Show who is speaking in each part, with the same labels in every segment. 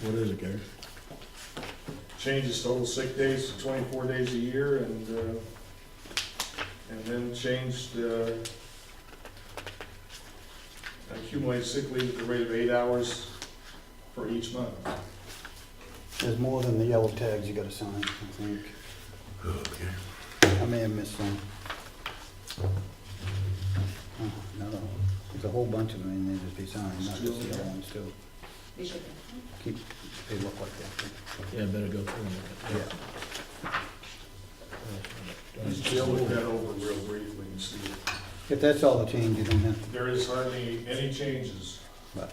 Speaker 1: What is it, Gary?
Speaker 2: changes total sick days to twenty-four days a year and, uh, and then changed, uh, accumulated sick leave at the rate of eight hours for each month.
Speaker 3: There's more than the yellow tags you gotta sign, I think. I may have missed some. Oh, No, there's a whole bunch of them in there to be signed, not just the yellow ones too.
Speaker 4: We should.
Speaker 3: Keep, they look like that.
Speaker 1: Yeah, better go through
Speaker 3: Yeah.
Speaker 1: it.
Speaker 2: Just look that over real briefly and see.
Speaker 3: If that's all the change, you don't have to,
Speaker 2: There is hardly any changes.
Speaker 3: but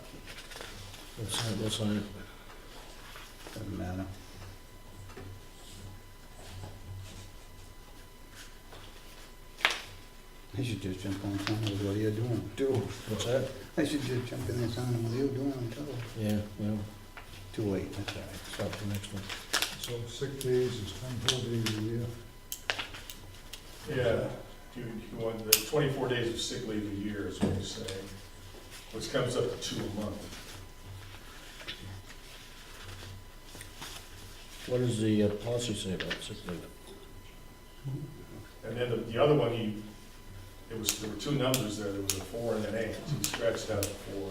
Speaker 1: We'll sign it, we'll sign it.
Speaker 3: doesn't matter. I should just jump on some of what you're doing. Do.
Speaker 1: What's that?
Speaker 3: I should just jump in and sign what you're doing, too.
Speaker 1: Yeah, well,
Speaker 3: Too late, that's all right.
Speaker 1: stop the next one.
Speaker 5: So sick days is twenty-four days a year.
Speaker 2: Yeah, you, you want the twenty-four days of sick leave a year is what you're saying, which comes up to two a month.
Speaker 1: What does the uh, policy say about sick leave?
Speaker 2: And then the, the other one, he, it was, there were two numbers there, there was a four and an eight, he scratched out the four.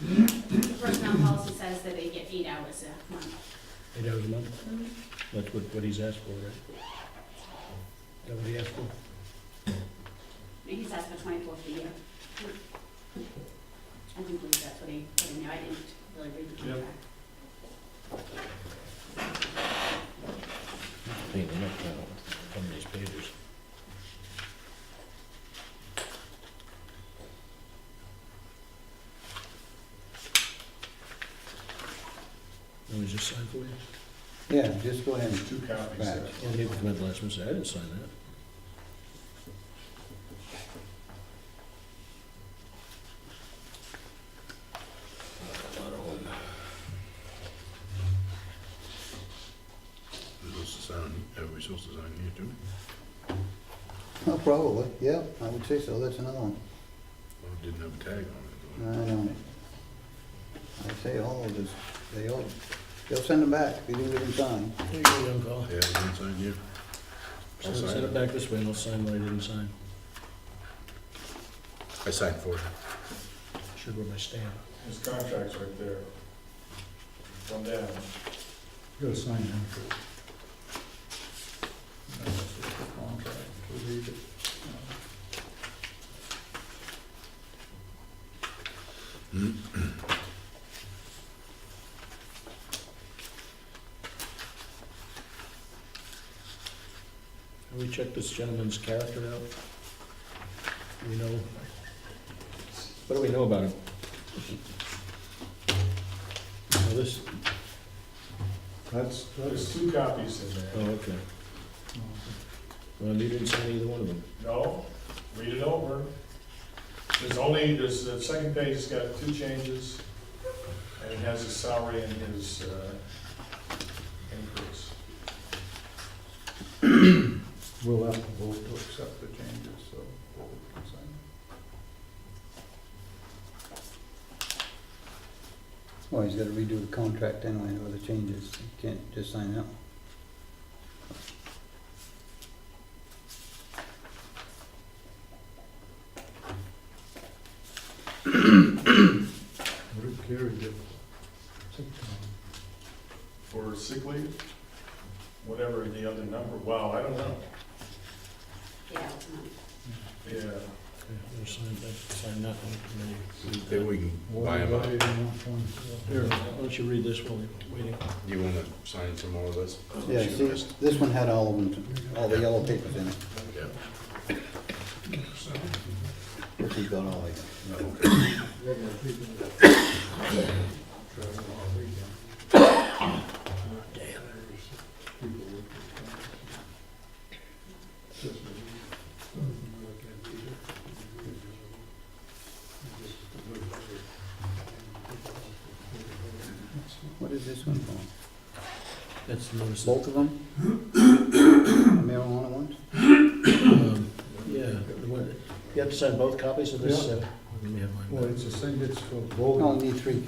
Speaker 4: The personnel policy says that they get eight hours a month.
Speaker 1: Eight hours a month? That's what, what he's asked for, right? Is That what he asked for?
Speaker 4: And he's asked for twenty-four for a year. I do believe that's what he put in there, I didn't really read the
Speaker 2: Yep.
Speaker 4: contract.
Speaker 1: Clean it up now, some of these pages. Let me just sign for you.
Speaker 3: Yeah, just go ahead and
Speaker 2: Two copies there.
Speaker 3: Right.
Speaker 1: Well, he went last month, and said, I didn't sign that.
Speaker 6: We're supposed to sign, are we supposed to sign here too?
Speaker 3: Oh, probably, yeah, I would say so, that's another one.
Speaker 6: Well, it didn't have a tag
Speaker 3: I
Speaker 6: on it.
Speaker 3: know. I say all of this, they all, they'll send them back if you didn't get them signed.
Speaker 1: There you go, young fella.
Speaker 6: though. Yeah, it didn't sign here. I'll
Speaker 1: Send
Speaker 6: sign
Speaker 1: send it
Speaker 6: it.
Speaker 1: back this way, and I'll sign what I didn't sign.
Speaker 6: I signed for it.
Speaker 1: Should wear my stamp.
Speaker 2: His contract's right there. Come down.
Speaker 5: You gotta sign them. That's the contract, to read it.
Speaker 1: Have we checked this gentleman's character out? Do we know? What do we know about him? Now this,
Speaker 5: That's,
Speaker 2: There's
Speaker 5: that's,
Speaker 2: two copies in
Speaker 1: oh,
Speaker 2: there.
Speaker 1: okay.
Speaker 5: no.
Speaker 1: Well, you didn't sign either one of them.
Speaker 2: No, read it over. There's only, there's, the second page has got two changes, and it has his salary and his, uh, increase.
Speaker 5: we'll have to vote to accept the changes, so. we can sign
Speaker 3: Well, he's gotta redo the contract anyway with the changes, He can't just sign out.
Speaker 5: it. What did Gary get? Sick time.
Speaker 2: For sick leave, whatever the other number, wow, I don't know.
Speaker 4: Eight hours a month.
Speaker 2: Yeah,
Speaker 1: Okay, I'm gonna Sign that, sign that one. and then you
Speaker 6: Maybe
Speaker 1: read
Speaker 6: we can buy
Speaker 5: Why
Speaker 6: him
Speaker 5: did
Speaker 6: a,
Speaker 5: I even want one?
Speaker 1: that. Here, why don't you read this while you're waiting?
Speaker 6: do you wanna sign some more of this?
Speaker 3: Yeah, see, this one had all of them, all the yellow papers in it,
Speaker 6: Yeah.
Speaker 3: which he's got all of them.
Speaker 5: Regular people. Travel all weekend. People work this time. Just a week. Doesn't work out either. You just look at it.
Speaker 3: What is this one for?
Speaker 1: That's the notice.
Speaker 3: Both of them? Marijuana ones?
Speaker 1: Um, Yeah, the one- you have to sign both copies of this? uh, Let me have mine.
Speaker 5: Well, it's a thing, it's for voting.
Speaker 3: Only three